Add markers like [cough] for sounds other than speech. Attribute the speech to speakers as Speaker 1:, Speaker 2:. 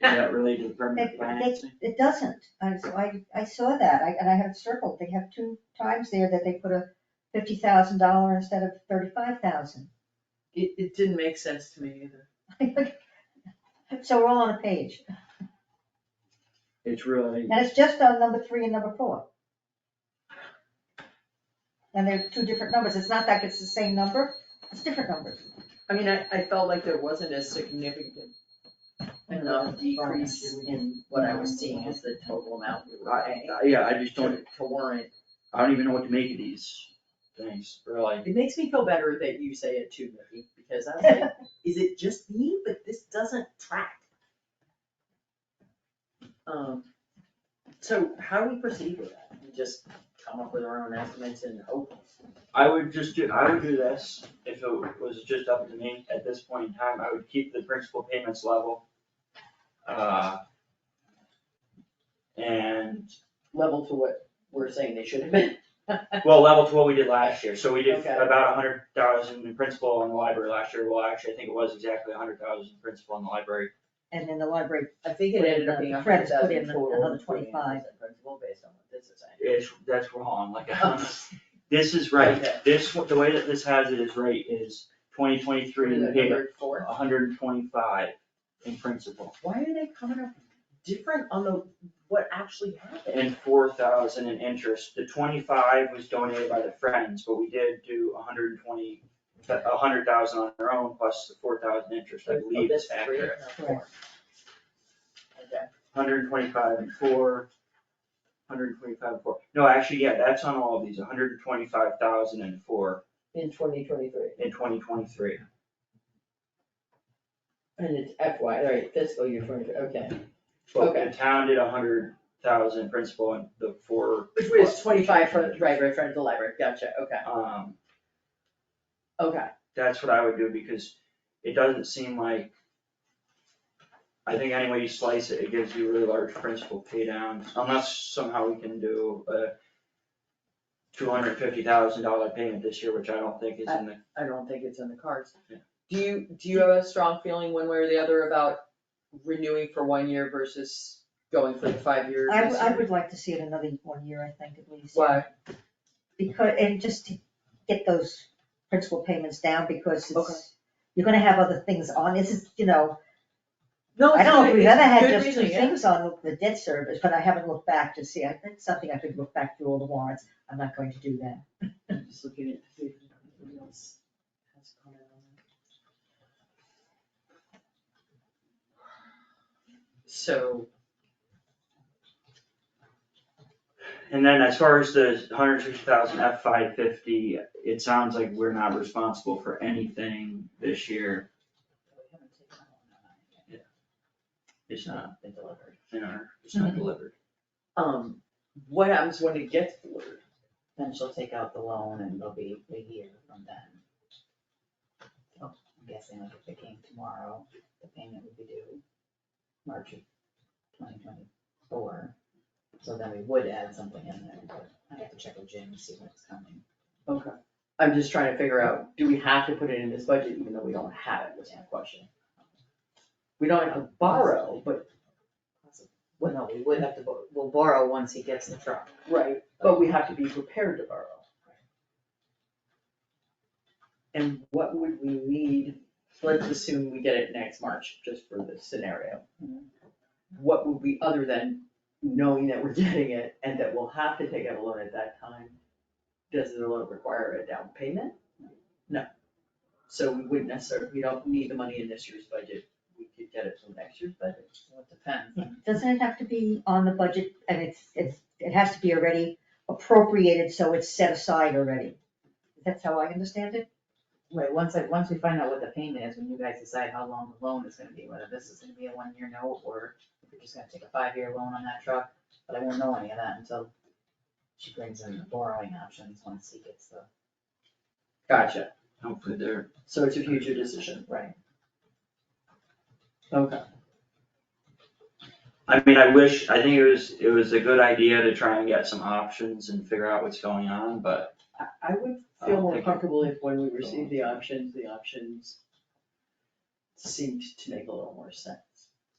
Speaker 1: that related to permanent
Speaker 2: It- it-
Speaker 1: financing?
Speaker 2: It doesn't, and so I, I saw that, I, and I have it circled, they have two times there that they put a fifty thousand dollar instead of thirty-five thousand.
Speaker 3: It, it didn't make sense to me either.
Speaker 2: [laughs] So we're all on a page,
Speaker 1: It's really,
Speaker 2: and it's just on number three and number four. And they're two different numbers, it's not like it's the same number, it's different numbers.
Speaker 3: I mean, I, I felt like there wasn't a significant enough decrease in what I was seeing as the total amount we were paying
Speaker 1: I- yeah, I just
Speaker 3: to,
Speaker 1: don't,
Speaker 3: to warrant.
Speaker 1: I don't even know what to make of these things, really.
Speaker 3: It makes me feel better that you say it too, Nikki, because I was like, is it just me? But this doesn't track. Um, so how do we proceed with that? We just come up with our own estimates and hope
Speaker 1: I would just do, I would do this, if it was just up to me at this point in time, I would keep the principal payments level. Uh. And,
Speaker 3: level to what we're saying they should have been. [laughs]
Speaker 1: well, level to what we did last year, so we did
Speaker 3: Okay.
Speaker 1: about a hundred thousand in principal in the library last year, well, actually, I think it was exactly a hundred thousand in principal in the library.
Speaker 2: And then the library,
Speaker 3: I think it
Speaker 2: Put in
Speaker 3: ended up
Speaker 2: the
Speaker 3: being a hundred
Speaker 2: credits, put
Speaker 3: thousand
Speaker 2: in
Speaker 3: total.
Speaker 2: another
Speaker 3: including
Speaker 2: 25.
Speaker 3: interest and Principal based on what this is saying.
Speaker 1: It's, that's wrong, like,
Speaker 3: Oh.
Speaker 1: [laughs] this is right,
Speaker 3: Okay.
Speaker 1: this, the way that this has it is right, is twenty twenty-three in the paper,
Speaker 3: Number four.
Speaker 1: hundred and twenty-five in principal.
Speaker 3: Why are they coming up different on the, what actually happened?
Speaker 1: and four thousand in interest. The twenty-five was donated by the Friends, but we did do a hundred and twenty, a hundred thousand on our own plus the four thousand interest, I
Speaker 3: Oh,
Speaker 1: believe
Speaker 3: this
Speaker 1: is
Speaker 3: three
Speaker 1: accurate.
Speaker 3: and a four. Okay,
Speaker 1: Hundred and twenty-five and four, hundred and twenty-five and four. No, actually, yeah, that's on all of these, hundred and twenty-five thousand and four
Speaker 3: in twenty twenty-three,
Speaker 1: in twenty twenty-three.
Speaker 3: and it's FY, right, fiscal year twenty, okay.
Speaker 1: But
Speaker 3: Okay.
Speaker 1: the town did a hundred thousand principal and the four,
Speaker 3: Which was twenty-five for, right, right, front of the library, gotcha, okay,
Speaker 1: um,
Speaker 3: okay.
Speaker 1: that's what I would do, because it doesn't seem like. I think any way you slice it, it gives you really large principal pay downs, unless somehow we can do a. Two hundred fifty thousand dollar payment this year, which I don't think is in the,
Speaker 3: I don't think it's in the cards.
Speaker 1: Yeah.
Speaker 3: Do you, do you have a strong feeling one way or the other about renewing for one year versus going for the five year?
Speaker 2: I, w-
Speaker 3: this
Speaker 2: I
Speaker 3: year?
Speaker 2: would like to see it another one year, I think, at least.
Speaker 3: Why?
Speaker 2: Because, and just to get those principal payments down, because
Speaker 3: Okay.
Speaker 2: it's, you're gonna have other things on, this is, you know,
Speaker 3: No,
Speaker 2: I don't know if we've ever had just two
Speaker 3: reasoning, yeah.
Speaker 2: things on the debt service, but I haven't looked back to see, I think something I could look back through all the warrants, I'm not going to do that.
Speaker 3: I'm just looking at, see if anybody else has a comment on that. So,
Speaker 1: and then as far as the hundred sixty thousand F five fifty, it sounds like we're not responsible for anything this year. It's not,
Speaker 3: not been delivered.
Speaker 1: in our- it's not
Speaker 3: Mm-hmm.
Speaker 1: delivered.
Speaker 3: Um, what happens when it gets delivered?
Speaker 4: Then she'll take out the loan and it'll be a year from then. So, I'm guessing like if they came tomorrow, the payment would be due March of twenty twenty-four. So then we would add something in there, but I have to check with Jim to see what's coming.
Speaker 3: Okay. I'm just trying to figure out, do we have to put it in this budget even though we don't have it, was my question. We don't have to borrow, but,
Speaker 4: Well, no, we would have to, bo- we'll borrow once he gets the truck.
Speaker 3: right, but we have to be prepared to borrow. And what would we need, let's assume we get it next March, just for this scenario. What would we, other than knowing that we're [laughs] getting it and that we'll have to take out a loan at that time, does the loan require a down payment? No. So we wouldn't necessarily, we don't need the money in this year's budget, we could get it from next year's budget.
Speaker 4: So it depends. on-
Speaker 2: Doesn't it have to be on the budget, and it's, it's, it has to be already appropriated, so it's set aside already? That's how I understand it?
Speaker 4: Wait, once I, once we find out what the payment is, when you guys decide how long the loan is gonna be, whether this is gonna be a one-year note or if we're just gonna take a five-year loan on that truck, but I won't know any of that until she brings in the borrowing options once he gets the,
Speaker 3: Gotcha,
Speaker 1: Hopefully they're,
Speaker 3: so it's a future decision.
Speaker 4: right.
Speaker 3: Okay.
Speaker 1: I mean, I wish, I think it was, it was a good idea to try and get some options and figure out what's going on, but
Speaker 3: I, I would
Speaker 1: I
Speaker 3: feel
Speaker 1: don't
Speaker 3: more
Speaker 1: think-
Speaker 3: comfortable if when we received the options, the options seemed to make a little more sense.